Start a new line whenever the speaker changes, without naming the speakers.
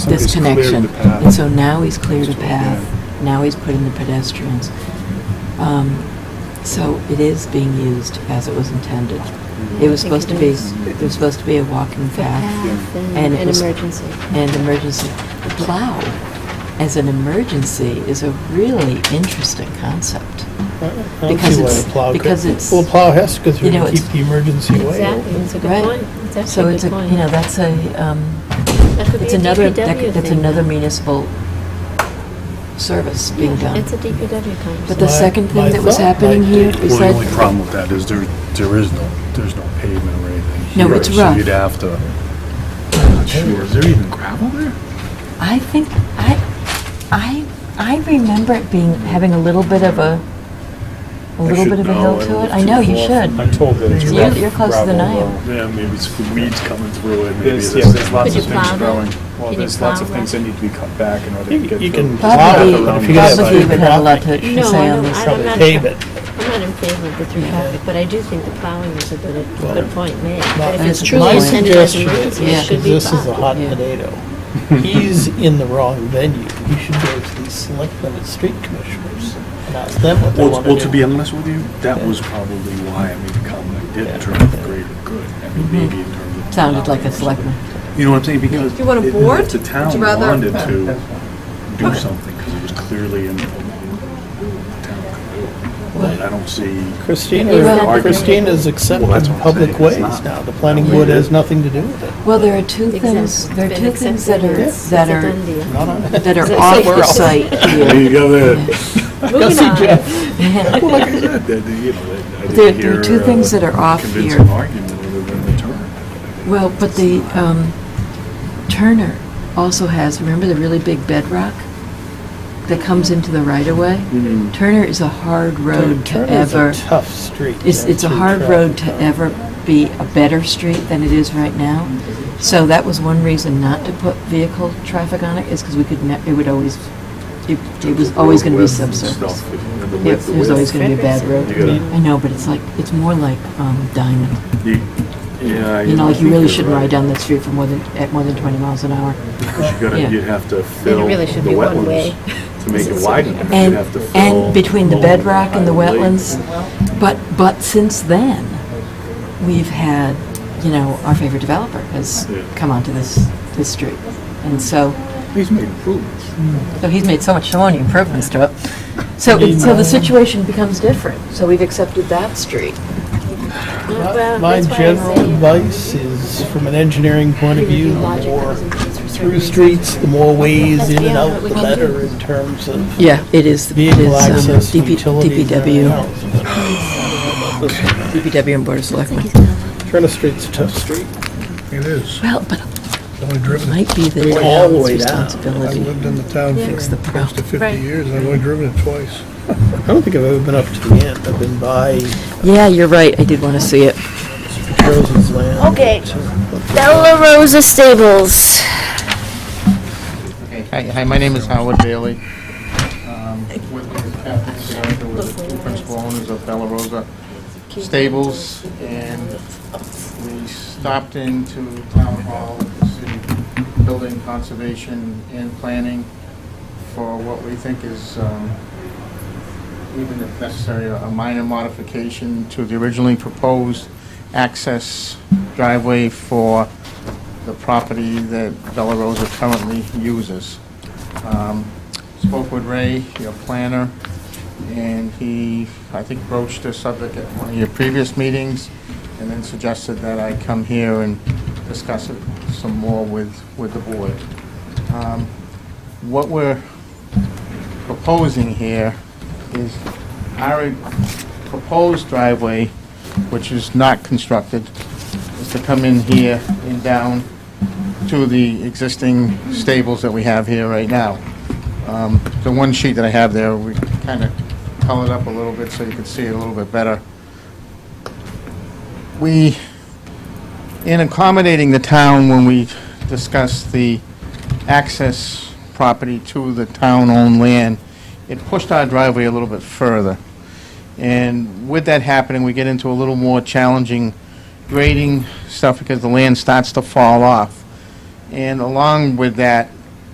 this
He's cleared
connection.
the path.
And so now he's cleared a
That's what,
path, now he's put in the pedestrians. Um, So it is being used as it was intended.
Mm-hmm.
It was supposed to be, it was supposed to be a walking path
path
And
and
it
an
was-
emergency.
and emergency. The plow as an emergency is a really interesting concept.
I don't
Because
see why
it's-
a plow could-
because it's-
Well, a plow has to go through
you know,
to keep
it's-
the emergency way
Exactly,
open.
that's a
Right.
good point. That's
So
actually a
it's a,
good point.
you know, that's a, um,
That could be
it's
a
another, that
DPW
could- that's
thing.
another municipal service being
Yeah,
done.
It's a DPW conversation.
But the
My-
second
my
thing that was
thought
happening
might
here
be-
is
Well, the only
that,
problem with that is there, there is no, there's no pavement or anything.
No,
here,
it's
So
rough.
you'd have to, I'm not sure, is there even gravel there?
I think, I, I, I remember it being, having a little bit of a, a
I
little
should
bit of a
know.
hill to
don't
it. I
too
know, you
far.
should.
I'm told that it's
You-
rough.
you're closer than I am.
gravel road.
Yeah, maybe it's weeds coming through it, maybe
There's, yeah,
there's.
there's lots
Could
of
you plow
things
that?
growing. Well,
Can
there's
you
lots of
plow
things
that?
that need to be cut back in order
You-
to get.
you
through.
can
There's
plow
not
it,
enough
but
room
if
to
you
get
get
by.
it-
Probably would have a lot to
No,
say
I
on
don't-
this.
I
Probably
not
pave
sure.
it.
I'm not in favor of the through traffic, but I do think the plowing is a good, good point made. But if
That's
it's
a good
truly
My
point.
intended as an
suggestion
emergency, it
Yeah.
is,
should be
this is a
plowed.
hot
Yeah.
potato. He's in the wrong venue. He should go to the selectmen and street commissioners and ask them what they
Well,
want
well, to
to
be
do.
honest with you, that
Yeah.
was probably why I made the comment I did
Yeah.
in terms of greater good. I
Mm-hmm.
mean, maybe in terms of.
Sounded like a selectman.
You know what I'm saying? Because.
Do you want a
if-
board?
If the town
Would you rather-
wanted to do something, because it was clearly in the town. code, But I don't see.
Christina,
Well-
Well, Christina's accepted
Well, that's what I'm
public
saying. It's
ways
not-
now. The planning board has nothing to do with it.
Well, there are two things,
Exempt-
there are
been
two things that
accepted,
are,
it's-
that
it's a done
are,
deal.
Not on-
that are
It's
off
somewhere
the
else.
site
There
here.
you go, there.
Moving
see
on.
Jeff.
Well, like I said, that, that, you know, that I didn't
There- there are
hear,
two
uh,
things that are off
Convincing
here.
argument other than the term.
Well, but the, um, Turner also has, remember the really big bedrock that comes into the right of way? Turner is a hard road
Dude,
to
Turner's
ever,
a tough street.
it's,
man,
it's a
through
hard
traffic.
road to ever be a better street than it is right now. So that was one reason not to put vehicle traffic on it, is because we could ne, it would always, it, it was always gonna be
Width and
subsurface.
stuff, you know, the
It
width, the
was
width.
always gonna be a bad road.
You gotta-
I know, but it's like, it's more like, um, Diamond.
You yeah, I-
You know,
I
like
think
you really
you're
shouldn't
right.
ride down that street for more than, at more than 20 miles an hour.
Because you
Yeah.
gotta, you'd have to
Then
fill
it
the
really should be one way.
wetlands to make it
It's a-
wide enough. You'd
And,
have to fill
and between the
lower
bedrock and the
higher lake.
wetlands. But, but since then, we've had, you know, our favorite developer has
Yeah.
come onto this, this street. And so,
He's made improvements.
so he's made so much, so many improvements to it. So, it- so the situation becomes different. So we've accepted that street.
Well,
My
that's why I
general
say-
advice is, from an engineering point of view, the more through streets, the more ways in and out, the better in terms of
Yeah, it is, it
vehicle
is um,
access,
DP
utilities, uh, and everything
DPW,
else. But-
DPW and Board of Selectmen.
Turner Street's a tough street.
It is.
Well, but
It's only driven.
it might be the
Go all the
town's
way down.
I've
responsibility.
lived in the town
Yeah. Fix the
for close to
problem.
50
Right.
years. I've only driven it twice.
I don't think I've ever been up to the end. I've been by
Yeah, you're right, I did want to see it.
Rosen's land.
Okay. Bella Rosa Stables.
Hey, Hi, hi, my name is Howard Bailey. Um, With me is Kathy Sandra, we're the two principal owners of Bella Rosa Stables, and we stopped into Town Hall, the City Building Conservation and Planning for what we think is, um, even if necessary, a minor modification to the originally proposed access driveway for the property that Bella Rosa currently uses. Um, Spoke with Ray, your planner, and he, I think broached the subject at one of your previous meetings, and then suggested that I come here and discuss it some more with, with the board. Um, What we're proposing here is our proposed driveway, which is not constructed, is to come in here and down to the existing stables that we have here right now. Um, The one sheet that I have there, we kind of colored up a little bit so you could see it a little bit better. We, in accommodating the town when we discussed the access property to the town-owned land, it pushed our driveway a little bit further. And with that happening, we get into a little more challenging grading stuff because the land starts to fall off. And along with that,